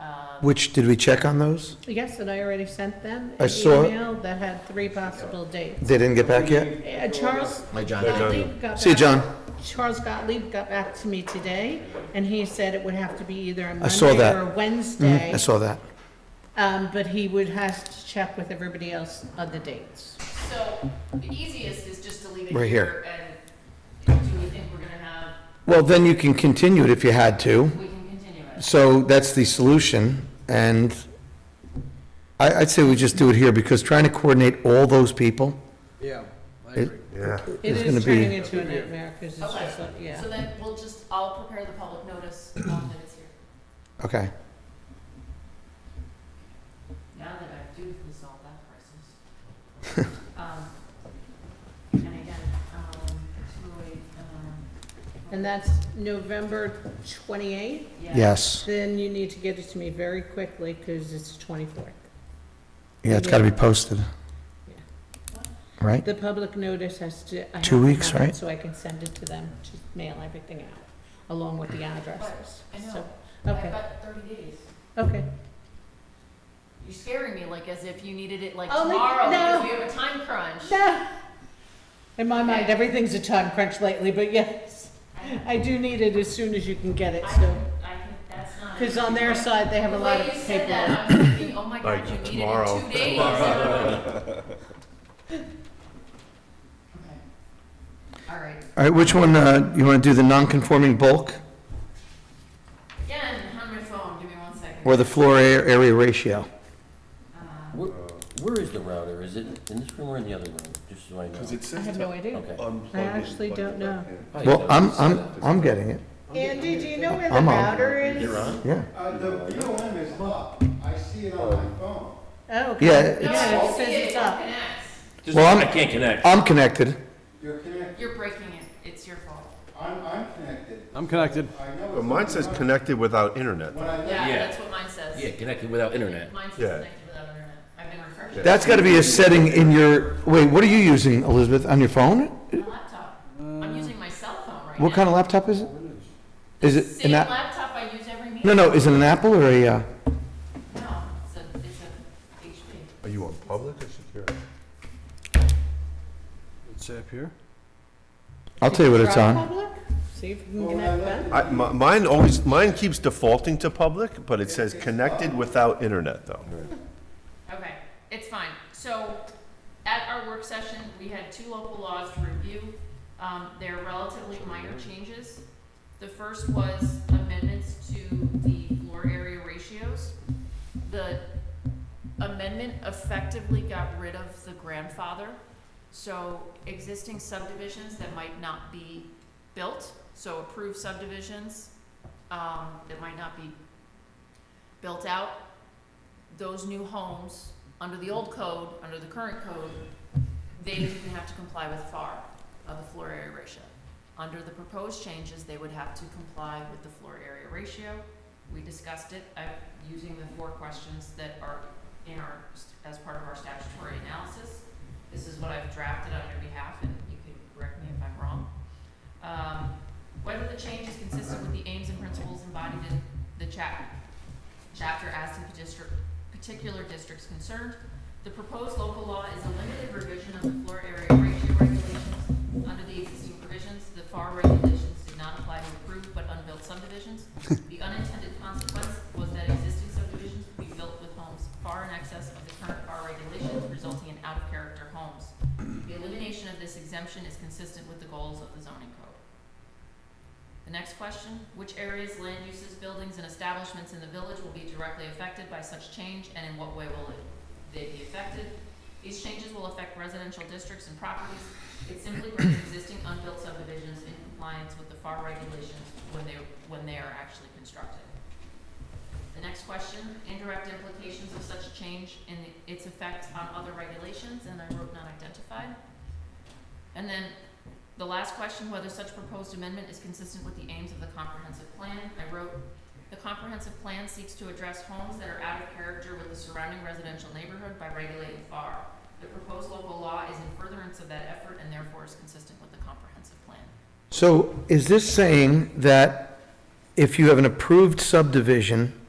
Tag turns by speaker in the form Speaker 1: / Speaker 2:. Speaker 1: Um,
Speaker 2: Which, did we check on those?
Speaker 3: Yes, and I already sent them
Speaker 2: I
Speaker 3: an
Speaker 2: saw it.
Speaker 3: email that had three possible dates.
Speaker 2: They didn't get back yet?
Speaker 3: Uh, Charles
Speaker 4: My John.
Speaker 3: Gottlieb got back.
Speaker 2: See you, John.
Speaker 3: Charles Gottlieb got back to me today, and he said it would have to be either a
Speaker 2: saw
Speaker 3: Monday
Speaker 2: that.
Speaker 3: or a Wednesday.
Speaker 2: Mhm, I saw that.
Speaker 3: Um, but he would have to check with everybody else on the dates.
Speaker 1: So the easiest is just to leave it
Speaker 2: Right here.
Speaker 1: here and do we think we're gonna have,
Speaker 2: Well, then you can continue it if you had to.
Speaker 1: we can continue it.
Speaker 2: So that's the solution, and I, I'd say we just do it here, because trying to coordinate all those people,
Speaker 5: Yeah, I
Speaker 2: It-
Speaker 5: agree.
Speaker 6: Yeah.
Speaker 3: It
Speaker 2: It's
Speaker 3: is
Speaker 2: gonna be-
Speaker 3: turning into a nightmare, because it's
Speaker 1: Okay.
Speaker 3: just, like, yeah.
Speaker 1: So then we'll just, I'll prepare the public notice um, that it's here.
Speaker 2: okay.
Speaker 1: Now that I do resolve that crisis. Um, And again, um, two, eight, um.
Speaker 3: And that's November twenty-eighth,
Speaker 1: yeah.
Speaker 2: Yes,
Speaker 3: then you need to get it to me very quickly, because it's the twenty-fourth.
Speaker 2: yeah, it's gotta be posted. Right?
Speaker 3: The public notice has to. I have
Speaker 2: Two
Speaker 3: to
Speaker 2: weeks,
Speaker 3: have it
Speaker 2: right?
Speaker 3: So I can send it to them, to mail everything out, along with the addresses.
Speaker 1: I know.
Speaker 3: So,
Speaker 1: I've
Speaker 3: Okay,
Speaker 1: got thirty days.
Speaker 3: okay.
Speaker 1: You're scaring me like as if you needed it like
Speaker 3: Oh, like,
Speaker 1: tomorrow
Speaker 3: no.
Speaker 1: because we have a time crunch.
Speaker 3: Yeah. In my mind, everything's a time crunch lately, but yes, I do need it as soon as you can get it,
Speaker 1: I
Speaker 3: so.
Speaker 1: can, I can, that's not.
Speaker 3: Because on their side, they have a
Speaker 1: The
Speaker 3: lot
Speaker 1: way
Speaker 3: of
Speaker 1: you said that,
Speaker 3: paperwork.
Speaker 1: I'm thinking, oh my
Speaker 6: Like,
Speaker 1: god, you need it in
Speaker 6: tomorrow.
Speaker 1: two days. Okay. All right,
Speaker 2: All right, which one, uh, you wanna do the non-conforming bulk,
Speaker 1: again, on my phone, give me one second.
Speaker 2: or the floor a- area ratio?
Speaker 7: Where, where is the router? Is it in this room or in the other room? Just so I know.
Speaker 6: Because it
Speaker 3: I
Speaker 6: says.
Speaker 3: have no idea.
Speaker 7: Okay.
Speaker 3: I actually don't know.
Speaker 7: Oh, yeah,
Speaker 2: Well,
Speaker 7: that
Speaker 2: I'm,
Speaker 7: was-
Speaker 2: I'm, I'm getting it,
Speaker 3: Andy, do you know where the
Speaker 2: I'm on.
Speaker 3: router is?
Speaker 7: You're on?
Speaker 2: yeah.
Speaker 8: Uh, the BOM is up, I see it on my phone.
Speaker 3: Oh, okay.
Speaker 2: Yeah,
Speaker 3: Yeah,
Speaker 2: it's-
Speaker 3: it says it's up.
Speaker 7: Just-
Speaker 2: Well, I'm-
Speaker 7: I can't connect.
Speaker 2: I'm connected,
Speaker 8: You're connected,
Speaker 1: You're breaking it, it's your fault.
Speaker 8: I'm, I'm connected,
Speaker 5: I'm connected.
Speaker 8: I know it's.
Speaker 6: But mine says connected without internet.
Speaker 8: When I,
Speaker 1: Yeah,
Speaker 7: Yeah.
Speaker 1: that's what mine says.
Speaker 7: Yeah, connected without internet.
Speaker 1: Mine says
Speaker 6: Yeah.
Speaker 1: connected without internet. I've been refreshing
Speaker 2: that's gotta be a setting in your, wait, what are you using, Elizabeth, on your phone?
Speaker 1: my laptop. I'm using my cell phone right now.
Speaker 2: Uh, What kind of laptop is it? Is it
Speaker 1: Same
Speaker 2: an app?
Speaker 1: laptop I use every meeting.
Speaker 2: No, no, is it an Apple or a, uh,
Speaker 1: No, it's a, it's a HP.
Speaker 6: Are you on public or secure?
Speaker 5: It's up here.
Speaker 2: I'll tell you what it's
Speaker 3: Try
Speaker 2: on.
Speaker 3: public? See if you can
Speaker 8: Well,
Speaker 3: connect
Speaker 8: I
Speaker 3: that.
Speaker 6: I, mi- mine always, mine keeps defaulting to public, but it says connected without internet though.
Speaker 1: Okay, it's fine. So at our work session, we had two local laws to review. Um, they're relatively minor changes. The first was amendments to the floor area ratios. The amendment effectively got rid of the grandfather. So existing subdivisions that might not be built, so approved subdivisions, um, that might not be built out, those new homes, under the old code, under the current code, they didn't have to comply with FAR of the floor area ratio. Under the proposed changes, they would have to comply with the floor area ratio. We discussed it, I'm using the four questions that are in our, as part of our statutory analysis. This is what I've drafted on your behalf, and you can correct me if I'm wrong. Um, whether the change is consistent with the aims and principles embodied in the chap, chapter as to the district, particular districts concerned. The proposed local law is a limited revision of the floor area ratio regulations. Under the existing provisions, the FAR regulations did not apply to approved but unbuilt subdivisions. The unintended consequence was that existing subdivisions would be built with homes far in excess of the current FAR regulations, resulting in out-of-character homes. The elimination of this exemption is consistent with the goals of the zoning code. The next question, which areas, land uses, buildings, and establishments in the village will be directly affected by such change, and in what way will it- they be affected? These changes will affect residential districts and properties. It simply brings existing unbuilt subdivisions in compliance with the FAR regulations when they, when they are actually constructed. The next question, indirect implications of such change and its effect on other regulations, and I wrote not identified. And then the last question, whether such proposed amendment is consistent with the aims of the comprehensive plan, I wrote, "The comprehensive plan seeks to address homes that are out of character with the surrounding residential neighborhood by regulating FAR. The proposed local law is in furtherance of that effort and therefore is consistent with the comprehensive plan."
Speaker 2: So is this saying that if you have an approved subdivision